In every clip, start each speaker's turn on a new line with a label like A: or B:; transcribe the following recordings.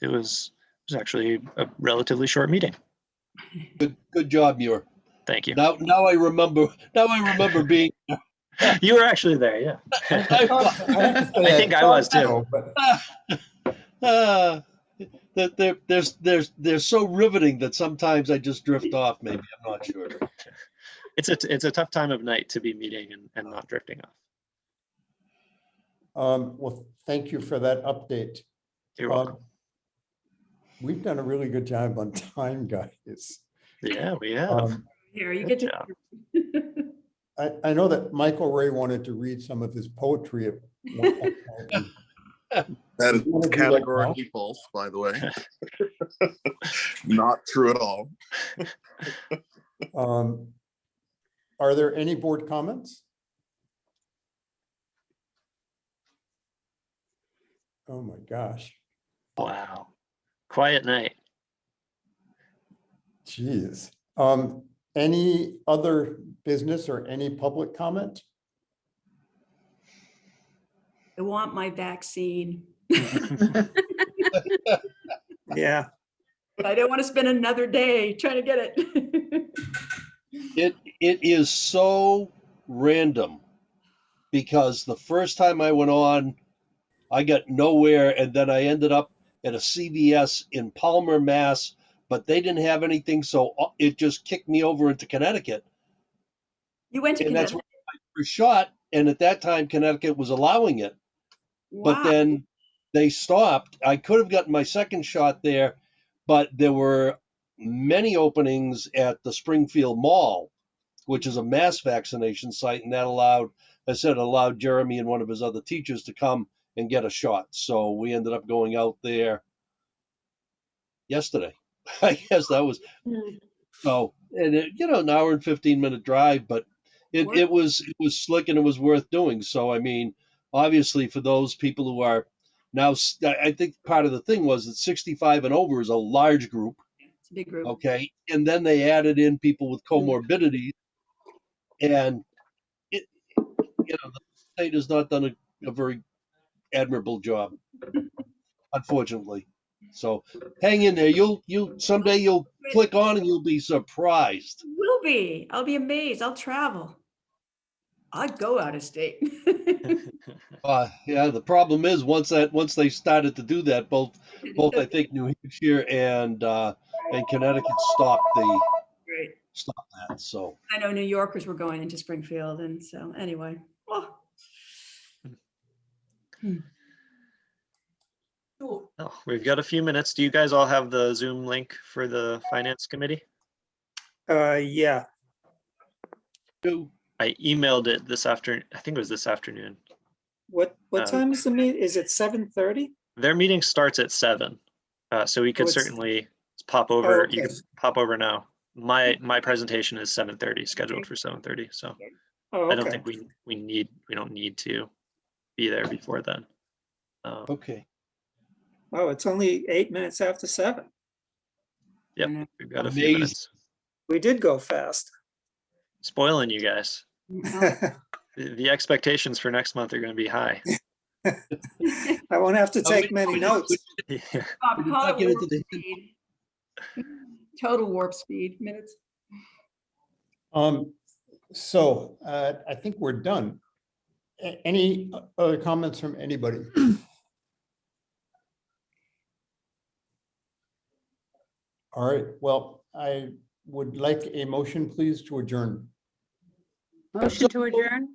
A: it was, it was actually a relatively short meeting.
B: Good, good job, Muir.
A: Thank you.
B: Now, now I remember, now I remember being,
A: You were actually there, yeah.
B: I was,
A: I think I was, too.
C: But
B: ah, that they're, they're, they're, they're so riveting that sometimes I just drift off, maybe, I'm not sure.
A: It's a, it's a tough time of night to be meeting and, and not drifting off.
C: Um, well, thank you for that update.
A: You're
C: Um,
A: welcome.
C: We've done a really good job on time, guys.
A: Yeah, we have.
C: Um,
D: Here, you
A: Good
D: get
A: job.
D: to.
C: I, I know that Michael Ray wanted to read some of his poetry. at one point in time.
E: That
C: You wanna do
E: is
C: that now?
E: categorically false, by the way. Not true at all.
C: Um, Are there any board comments? Oh, my gosh.
A: Wow. Quiet night.
C: Jeez. Um, any other business or any public comment?
D: I want my vaccine.
F: Yeah,
D: I don't want to spend another day trying to get it.
B: It, it is so random because the first time I went on, I got nowhere and then I ended up at a CVS in Palmer, Mass, but they didn't have anything, so uh, it just kicked me over into Connecticut.
D: You went to
B: And that's
D: Connecticut.
B: where I was shot, and at that time Connecticut was allowing it. but
D: Wow.
B: then they stopped. I could have gotten my second shot there, but there were many openings at the Springfield Mall, which is a mass vaccination site, and that allowed, I said, allowed Jeremy and one of his other teachers to come and get a shot. So we ended up going out there yesterday. I guess that was
D: Mm.
B: so, and it, you know, an hour and fifteen minute drive, but it,
D: Worth
B: it
D: it.
B: was it was slick and it was worth doing. So I mean, obviously for those people who are now, s- I I think part of the thing was that sixty five and over is a large group,
D: It's a big group.
B: okay, and then they added in people with comorbidities, and it, you know, the state has not done a, a very admirable job, unfortunately. So hang in there. You'll you someday you'll click on and you'll be surprised.
D: Will be. I'll be amazed. I'll travel. I'd go out of state.
B: Uh, yeah, the problem is once that once they started to do that, both both I think New Hampshire and uh, and Connecticut stopped the
D: Great.
B: stopped that. So
D: I know New Yorkers were going into Springfield and so anyway. Oh,
B: Hmm.
D: Hmm.
A: Oh, We've got a few minutes. Do you guys all have the Zoom link for the finance committee?
F: uh, yeah.
B: two
A: I emailed it this afternoon. I think it was this afternoon.
F: What,
A: Um,
F: what time is the meet? Is it seven thirty?
A: Their meeting starts at seven, uh, so we
F: Oh,
A: could
F: it's-
A: certainly pop over. You
F: okay.
A: can pop over now. My my presentation is seven thirty, scheduled for seven thirty. So
F: Oh,
A: I don't
F: okay.
A: think we we need we don't need to be there before then. Um,
B: okay.
F: Oh, it's only eight minutes after seven.
A: we've got a few
B: amazing.
A: minutes.
F: We did go fast.
A: Spoiling you guys. The the expectations for next month are going to be high.
F: I won't have to
B: Oh, we-
F: take many
B: we-
F: notes.
A: Yeah.
D: Bob, call
B: not
D: it
B: get
D: warp
B: into the-
D: speed. Total warp speed minutes.
C: Um, so, uh, I think we're done. A- Any other comments from anybody? All right, well, I would like a motion, please, to adjourn.
G: Motion to adjourn?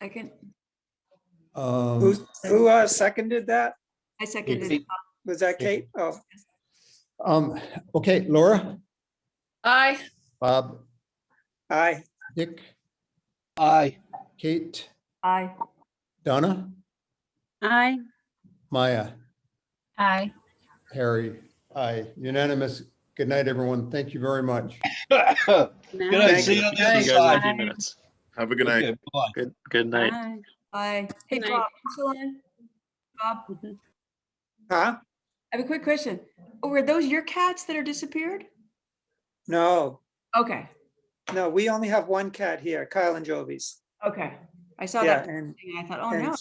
D: I can,
C: Um,
F: Who, who uh, seconded that?
D: I seconded.
B: Eight.
D: it.
F: Was that Kate? Oh,
C: Um, okay, Laura,
G: Aye.
C: Bob,
F: aye.
C: Dick,
B: Aye.
C: Kate,
D: Aye.
C: Donna,
G: Aye.
C: Maya,
G: Aye.
C: Harry, I unanimous. Good night, everyone. Thank you very much.
B: Good night.
G: Thank
B: See you on the other
A: You guys in a
B: side.
A: few minutes.
E: Have a good night.
B: Okay, bye.
A: Good good night.
G: Aye.
D: Aye. Hey,
G: Good night.
D: Bob, you still on? Bob,
F: Huh?
D: I have a quick question. Oh, Were those your cats that are disappeared?
F: No,
D: Okay,
F: no, we only have one cat here, Kyle and Jovi's.
D: okay. I saw
F: Yeah,
D: that.
F: and,
D: thing, I thought, oh
F: and
D: no.